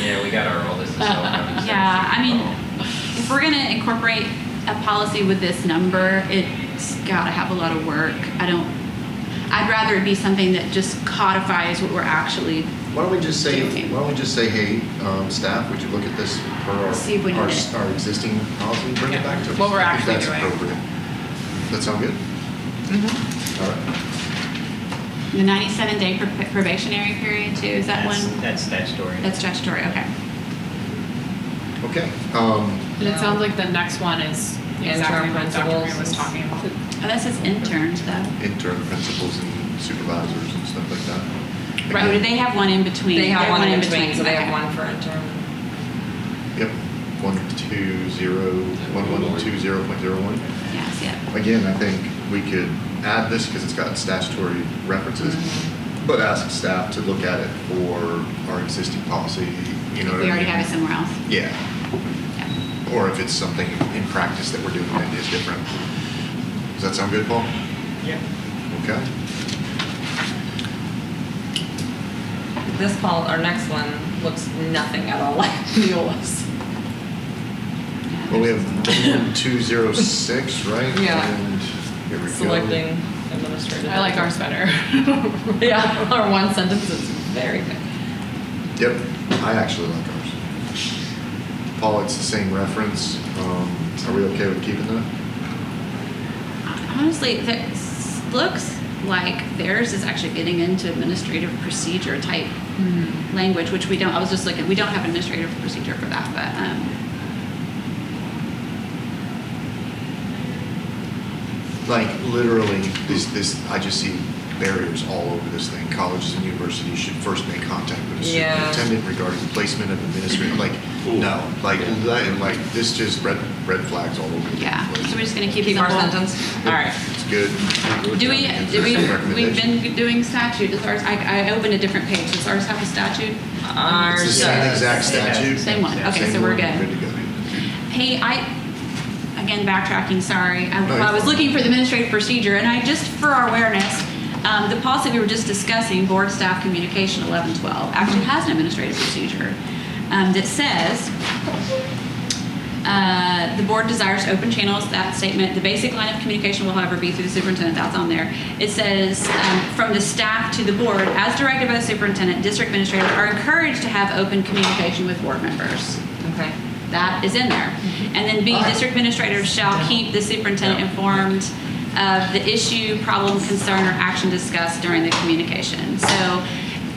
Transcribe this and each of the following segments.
Yeah, we got our oldest. Uh, Yeah, I mean, Oh, if we're gonna incorporate a policy with this number, it's gotta have a lot of work. I don't, I'd rather it be something that just codifies what we're actually, Why don't we just say, Okay. why don't we just say, hey, um, staff, would you look at this per our, See if we our, did it. our existing policy and bring it Yeah. back to us? What we're I think actually that's doing. appropriate. That sound good? Mm-hmm. All right. the ninety-seven day prob- probationary period too, is that That's- one? That's statutory. That's statutory, okay. Okay. Um, And it sounds like the next one is exactly Interim what Dr. Mayer was principals. talking about. Oh, that says interns though. intern principals and supervisors and stuff like that. Right, or Oh, do they have one in between? They have They're one in between, so they okay. have one for interim. Yep. One two zero one one two zero point zero one. Yeah, I see it. Again, I think we could add this because it's got statutory references, Mm-hmm. but ask staff to look at it for our existing policy. You know, what I We already mean? have it somewhere else. Yeah, Yeah. or if it's something in practice that we're doing that is different. Does that sound good, Paul? Yeah. Okay. This pol, our next one looks nothing at all like Neola's. Yeah, Well, we there's- have two zero six, right? Yeah. And here we go. Selecting administrative. I like ours better. Yeah, our one sentence is very good. Yep, I actually like ours. Paul, it's the same reference. Um, are we okay with keeping that? Honestly, that s- looks like theirs is actually getting into administrative procedure type Mm-hmm. language, which we don't. I was just looking, we don't have administrative procedure for that, but um, Like literally, this this I just see barriers all over this thing. Colleges and universities should first make contact with the Yeah. superintendent regarding placement of administrator. Like no, like li- like this just red red flags all over the yeah. place. So we're just gonna keep, Keep the our whole- sentence? All right. It's good. Do we? Do we? We've Recommendation. been doing statute. Does ours? I, I opened a different page. Does ours have a statute? Ours It's the same does. exact statute. Same one. Okay, Same so we're one. good. to go. Hey, I, again, backtracking, sorry. I, well, No, I you're was fine. looking for the administrative procedure, and I just, for our awareness, um, the policy we were just discussing, board staff communication 1112, actually has an administrative procedure um, that says, uh, the board desires open channels. That statement, the basic line of communication will, however, be through the superintendent. That's on there. It says um, from the staff to the board, as directed by the superintendent, district administrators are encouraged to have open communication with board members. Okay. That is in there. Mm-hmm. And then B, All right. district administrators shall keep the superintendent Yeah. informed of the issue, problem, concern, or action discussed during the communication. So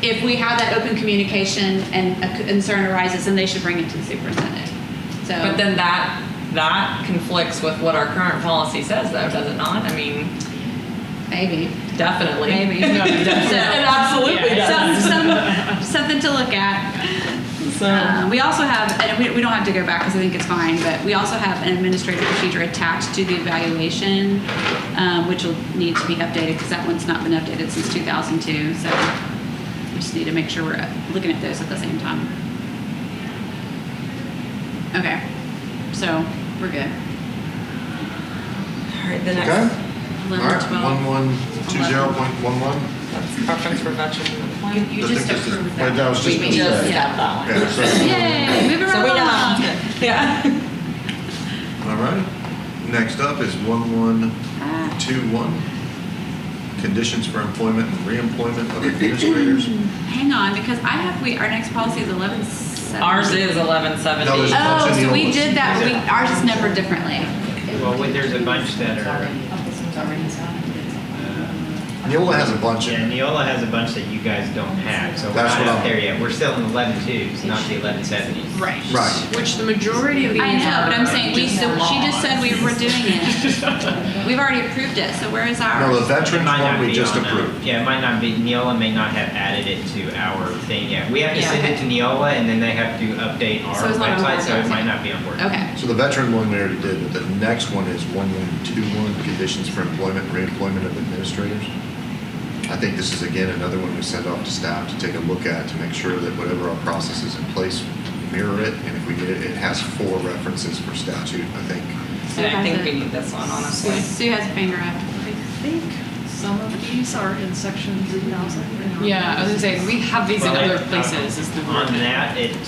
if we have that open communication and a concern arises, then they should bring it to the superintendent. So. But then that, that conflicts with what our current policy says though, does it not? I mean, Maybe. definitely. Maybe. It absolutely Yeah. Some, does. some, something to look at. Uh, we also have, and we, we don't have to go back because I think it's fine, but we also have an administrative procedure attached to the evaluation, um, which will need to be updated because that one's not been updated since 2002. So we just need to make sure we're uh, looking at those at the same time. Okay, so we're good. All right, the Okay. next, All 11, right. 12. One one two zero point one one. that's preference for veteran. You, you I just think this is- approved wait, that. that was just We me. just- have yeah. that Yeah, so- Yay, move So around we along. know. Yeah. All right. Next up is one one Ah. two one. Conditions for employment and reemployment of administrators. Hang on, because I have, we, our next policy is eleven seventy. Ours is eleven seventy. That was- Oh, It's in the so we old one. did that, we, ours is numbered differently. Well, wait, there's a bunch that are, uh, Neola has a bunch yeah, in it. Neola has a bunch that you guys don't have, so we're That's not what out I'm- there yet. We're still in eleven twos, not the eleven seventies. Right. Right. Which the majority of these are. I know, but I'm saying, we, just so she just laws. said we were doing it. We've already approved it, so where is No, the ours? veterans one we just approved. uh, Yeah, it might not be, Neola may not have added it to our thing yet. We have to Yeah, send it okay. to Neola and then they have to update So our it's not on website, board so it yet. might not be on board. Okay, So the veteran one we already did, but the next one is one one two one. Conditions for employment, and reemployment of administrators. I think this is again another one we send off to staff to take a look at to make sure that whatever our process is in place mirror it. And if we get it, it has four references for statute. I think And I think we need this one, honestly. Sue Sue has a finger up. I think some of these are in section 3,000. and not Yeah, I was gonna say, we have these in Well, I- other places, is the On word. that, it